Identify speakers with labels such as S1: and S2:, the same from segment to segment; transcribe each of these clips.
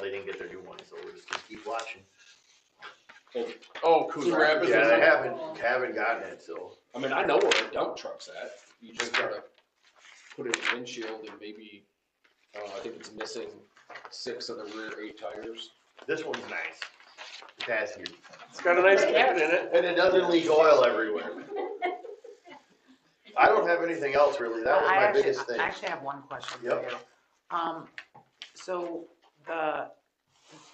S1: they didn't get their new one, so we're just gonna keep watching.
S2: Oh, Coos
S3: Coos
S2: Rapids.
S1: Yeah, they
S2: is-
S1: haven't, haven't gotten it, so.
S2: I mean, I know where a dump truck's at. You just gotta put in a windshield and maybe, uh, I think it's missing six of the rear eight tires.
S1: This one's nice. It has your-
S3: It's got a nice cat in it.
S1: And it doesn't leak oil everywhere. I don't have anything else really. That was
S4: I
S1: my
S4: actually-
S1: biggest thing.
S4: I actually have one question for
S1: Yep.
S4: you. Um, so the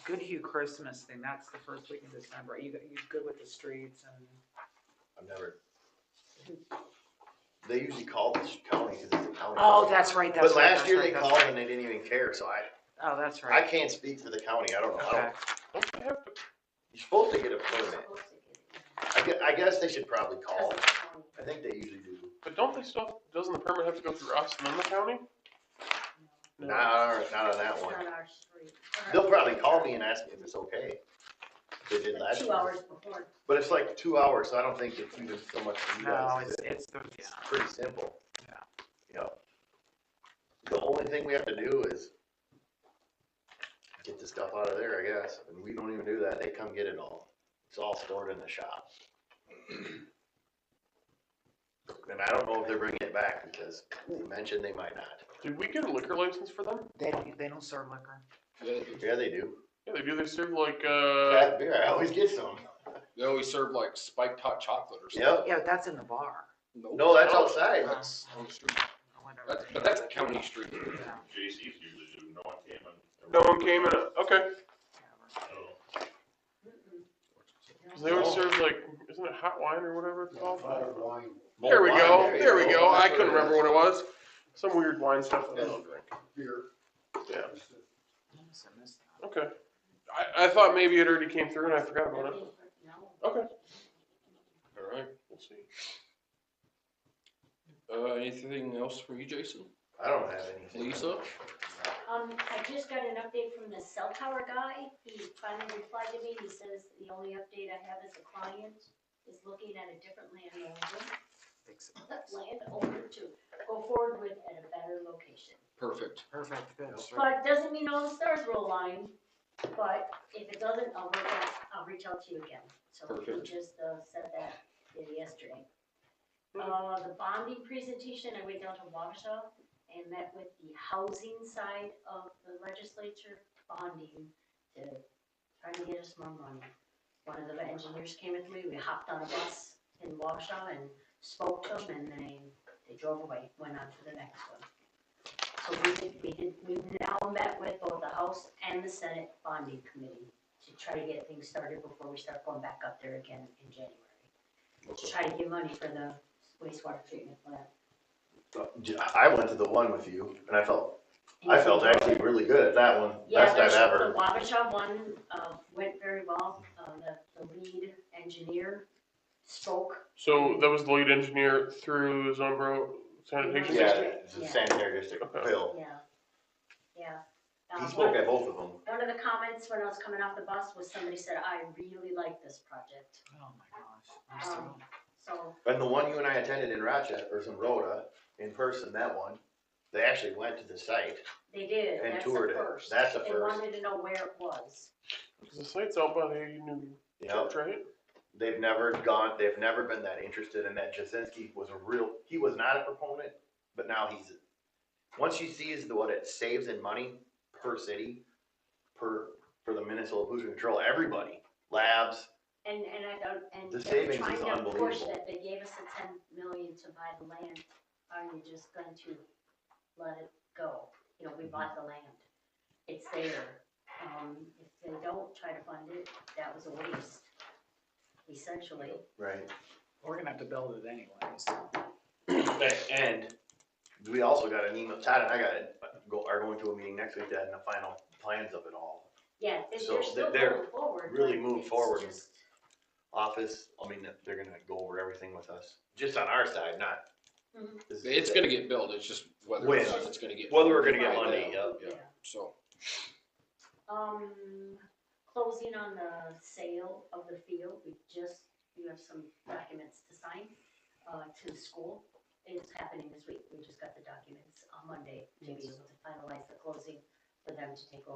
S4: Good Hue Christmas thing, that's the first week in December. Are you, you good with the streets and?
S1: I've never. They usually call this county because it's a county.
S4: Oh, that's right, that's
S1: But
S4: right.
S1: last
S4: that's
S1: year
S4: right,
S1: they
S4: that's
S1: called
S4: right.
S1: and they didn't even care, so I,
S4: Oh, that's
S1: I
S4: right.
S1: can't speak for the county. I don't know. I
S4: Okay.
S1: don't- You're supposed to get a permit. I guess, I guess they should probably call. I think they usually do.
S3: But don't they still, doesn't the permit have to go through us and then the county? No.
S1: Nah, not on that one. They'll probably call me and ask me if it's okay. They did last
S5: Two
S1: year.
S5: hours before.
S1: But it's like two hours, so I don't think it's even so much for you
S4: No,
S1: guys.
S4: it's,
S1: is it?
S4: it's, the- yeah.
S1: It's pretty simple.
S4: Yeah.
S1: You know, the only thing we have to do is get the stuff out of there, I guess, and we don't even do that. They come get it all. It's all stored in the shop. And I don't know if they're bringing it back because they mentioned they might not.
S3: Did we get a liquor license for them?
S4: They don't, they don't serve liquor.
S2: They
S1: Yeah, they do.
S3: Yeah, they do. They serve like, uh,
S1: Craft beer, I always get some.
S2: they always serve like spiked hot chocolate or something.
S1: Yep.
S4: Yeah, but that's in the bar.
S2: Nope.
S1: No, that's outside.
S2: That's on the street.
S4: or whatever.
S2: That's, but that's a county street.
S4: Yeah,
S6: JC's usually do, no one came and.
S3: no one came in. it. Okay.
S4: whatever.
S6: Oh.
S3: They always serve like, isn't it hot wine or whatever it's called? There
S1: Mulled
S3: we
S1: wine,
S3: go. There we
S1: you
S3: go. I
S1: That's
S3: couldn't
S1: it is.
S3: remember what it was. Some weird wine stuff that I don't drink. Yeah.
S4: I must have missed that.
S3: Okay. I, I thought maybe it already came through and I forgot about it. Okay.
S2: All right, we'll see. Uh, anything else for you, Jason?
S1: I don't have anything.
S2: Lisa?
S5: Um, I just got an update from the cell tower guy. He finally replied to me. He says the only update I have is a client is looking at a different landowner,
S4: Fix it.
S5: landowner to go forward with at a better location.
S2: Perfect.
S4: Perfect, good. that's right.
S5: But it doesn't mean all the stars will align, but if it doesn't, I'll work out, I'll reach out to you again. So we
S2: Perfect.
S5: just uh, said that in yesterday.
S3: Hmm.
S5: Uh, the bonding presentation, I went down to Waukesha and met with the housing side of the legislature bonding to try to get us more money. One of the engineers came with me, we hopped on a bus in Waukesha and spoke to them and they, they drove away, went on to the next one. So we did, we did, we've now met with both the House and the Senate bonding committee to try to get things started before we start going back up there again in January. To try to get money for the wastewater treatment plant.
S1: I went to the one with you, and I felt I felt actually really good at that one. Best I've
S5: Yeah, the-
S1: ever.
S5: the Wabasha one, uh, went very well, uh, the, the lead engineer spoke.
S3: So that was the lead engineer through Zombro sanitation
S1: Yeah,
S3: system?
S1: it's a sanitary district
S3: Okay.
S1: bill.
S5: Yeah, yeah.
S1: He
S5: Um,
S1: spoke at both of them.
S5: One of the comments when I was coming off the bus was somebody said, I really like this project,
S4: Oh, my gosh. I'm so-
S5: so,
S1: And the one you and I attended in Rochester, or in Rhoda, in person, that one, they actually went to the site
S5: they did,
S1: and
S5: that's the
S1: toured it.
S5: first.
S1: That's the
S5: They
S1: first.
S5: wanted to know where it was.
S3: Because the site's out by the new
S1: Yep.
S3: church, right?
S1: They've never gone, they've never been that interested in that. Jasinski was a real, he was not a proponent, but now he's, once you see is the- what it saves in money per city, per, for the Minnesota Pollution Control, everybody, labs,
S5: And, and I don't, and
S1: The
S5: they were
S1: savings
S5: trying
S1: is
S5: to push
S1: unbelievable.
S5: that they gave us the ten million to buy the land, are you just going to let it go? You know, we
S1: Mm-hmm.
S5: bought the land, it's there, um, if they don't try to fund it, that was a waste, essentially.
S1: right?
S4: We're gonna have to build it anyways.
S1: A- And we also got an email, Todd and I got, it, go, are going to a meeting next week to have the final plans of it all.
S5: Yeah, they-
S1: So
S5: they're still
S1: they're-
S5: going forward.
S1: really
S5: but
S1: moved
S5: it's
S1: forward.
S5: just-
S1: Office, I mean, they're gonna go over everything with us, just on our side, not.
S5: Mhm.
S1: this is-
S2: It's gonna get built, it's just whether or
S1: When?
S2: not it's gonna get.
S1: Whether we're gonna get
S2: Right
S1: money,
S2: now,
S1: yep.
S2: Yeah, so,
S5: Um, closing on the sale of the field, we just, you have some documents to sign, uh, to the school. It's happening this week, we just got the documents on Monday to be able to finalize the closing for them to take over.